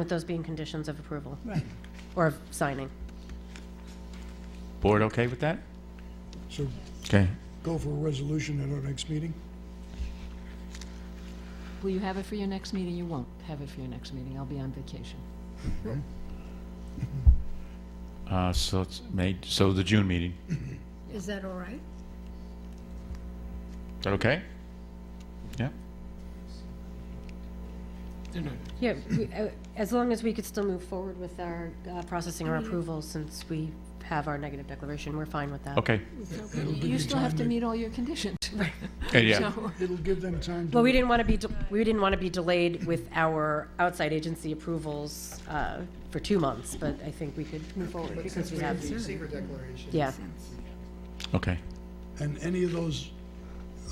With those being conditions of approval Right. or of signing. Board okay with that? So Okay. go for a resolution at our next meeting? Will you have it for your next meeting? You won't have it for your next meeting. I'll be on vacation. Uh, so it's made, so the June meeting, is Mm-hmm. Is that all right? that okay? Yeah? Yeah, we- uh, as long as we could still move forward with our uh, processing or approval, since we have our negative declaration, we're fine with that. Okay. You still have to meet all your conditions. Uh, Yeah, So- It'll give them time Well, we to, didn't want to be, de- we didn't want to be delayed with our outside agency approvals uh, for two months, but I think we could move forward because we have, The secret declaration. yeah. okay. and any of those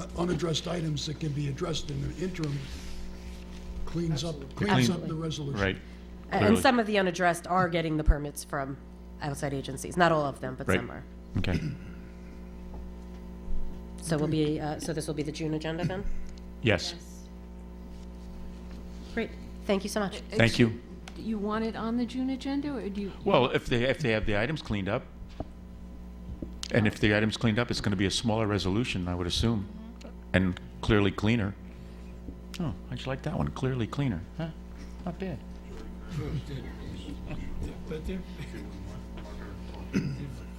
uh, unaddressed items that can be addressed in the interim cleans up, cleans up the Absolutely. resolution. Right. And Clearly. some of the unaddressed are getting the permits from outside agencies, not all of them, but Right. some are. Okay. So we'll be, uh, so this will be the June agenda then? Yes. Great, thank you so much. Thank you. You want it on the June agenda, or do you? Well, if they, if they have the items cleaned up, and if the items cleaned up, it's going to be a smaller resolution, I would assume, Mm-hmm. and clearly cleaner. Oh, I just like that one, clearly cleaner. Huh? Not bad. But they're, they're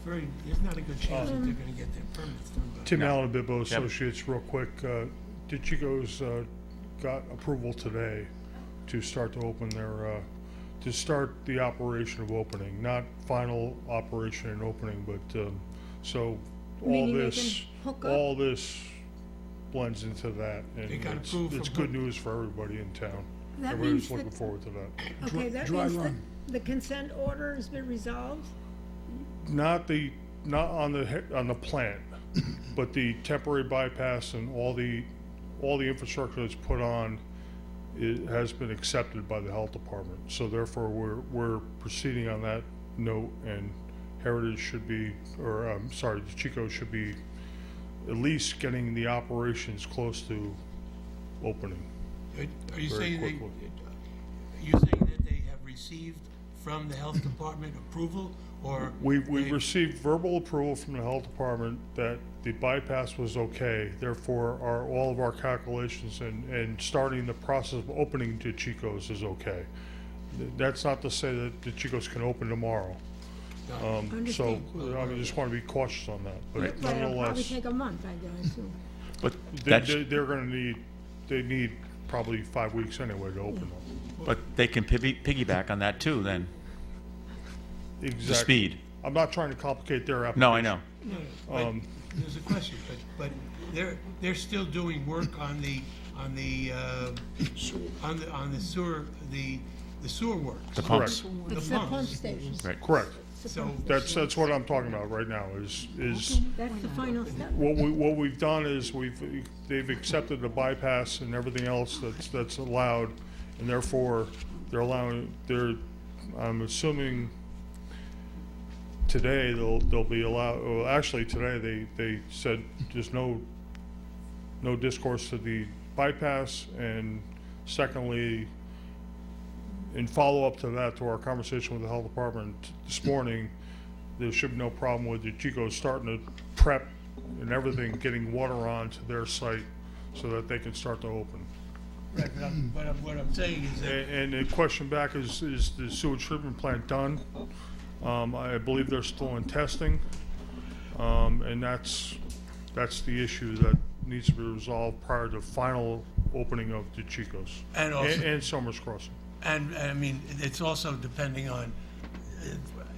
very, there's not a good chance that they're gonna get their permits done by. Tim Allen, Bibbo Yep. Associates, real quick. uh, DiCicco's uh, got approval today to start to open their, uh, to start the operation of opening, not final operation and opening, but, um, so all Meaning they this, can hook up? all this blends into that. and They got it's- approved It's from good who? news for everybody in town. That Everybody's means that- looking forward to that. Okay, that dry means that run. the consent order has been resolved? Not the, not on the, he- on the plant, but the temporary bypass and all the, all the infrastructure that's put on it has been accepted by the health department. So therefore, we're, we're proceeding on that note and Heritage should be, or I'm sorry, Chico should be at least getting the operations close to opening. Are- Are you Very saying they, quickly. are you saying that they have received from the health department approval, or? We, we they- received verbal approval from the health department that the bypass was okay, therefore our, all of our calculations and, and starting the process of opening to Chico's is okay. Th- That's not to say that the Chico's can open tomorrow. Um, so, I mean, just wanna be cautious on that, Right. but Right, it'll probably nonetheless, take a month, I gotta assume. But they, that's, they- they're gonna need, they need probably five weeks anyway to open them. but they can pivy- piggyback on that too, then, the Exactly. speed. I'm not trying to complicate their application. No, I know. No, no, but um, There's a question, but, but they're, they're still doing work on the, on the, uh, on the, on the sewer, the, the sewer works. The pumps, Correct, It's the pump station. right. correct. So, That's, that's what I'm talking about right now, is, is That's the final step. what we, what we've done is we've, they've accepted the bypass and everything else that's, that's allowed, and therefore, they're allowing, they're, I'm assuming today they'll, they'll be allowed, well, actually, today they, they said there's no, no discourse to the bypass, and secondly, in follow-up to that, to our conversation with the health department this morning, there should be no problem with the Chico's starting to prep and everything, getting water on to their site so that they can start to open. right, but I'm, but I'm, what I'm saying is A- that And the question back is, is the sewage treatment plant done? Um, I believe they're still in testing. Um, and that's, that's the issue that needs to be resolved prior to final opening of the Chico's. And also- And, and Summers Crossing. And, I mean, it's also depending on, uh,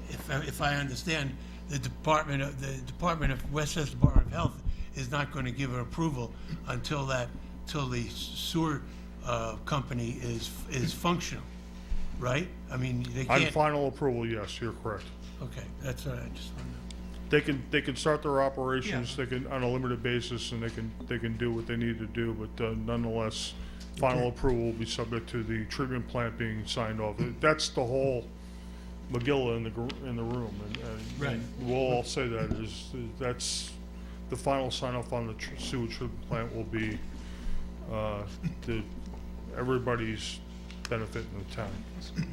if, if I understand, the Department of, the Department of, Westchester Department of Health is not going to give an approval until that, till the sewer uh, company is, is functional, right? I mean, they On can't, final approval, yes, you're correct. okay, that's what I just wanted to know. They can, they can start their operations, they can, on a limited basis, and they can, they can do what they need to do, but uh, nonetheless, final approval will be subject to the treatment plant being signed off. That's the whole McGill in the, gr- in the room, and- and, Right. and we'll all say that, is, that's, the final sign off on the tr- sewage treatment plant will be, uh, to everybody's benefit in the town.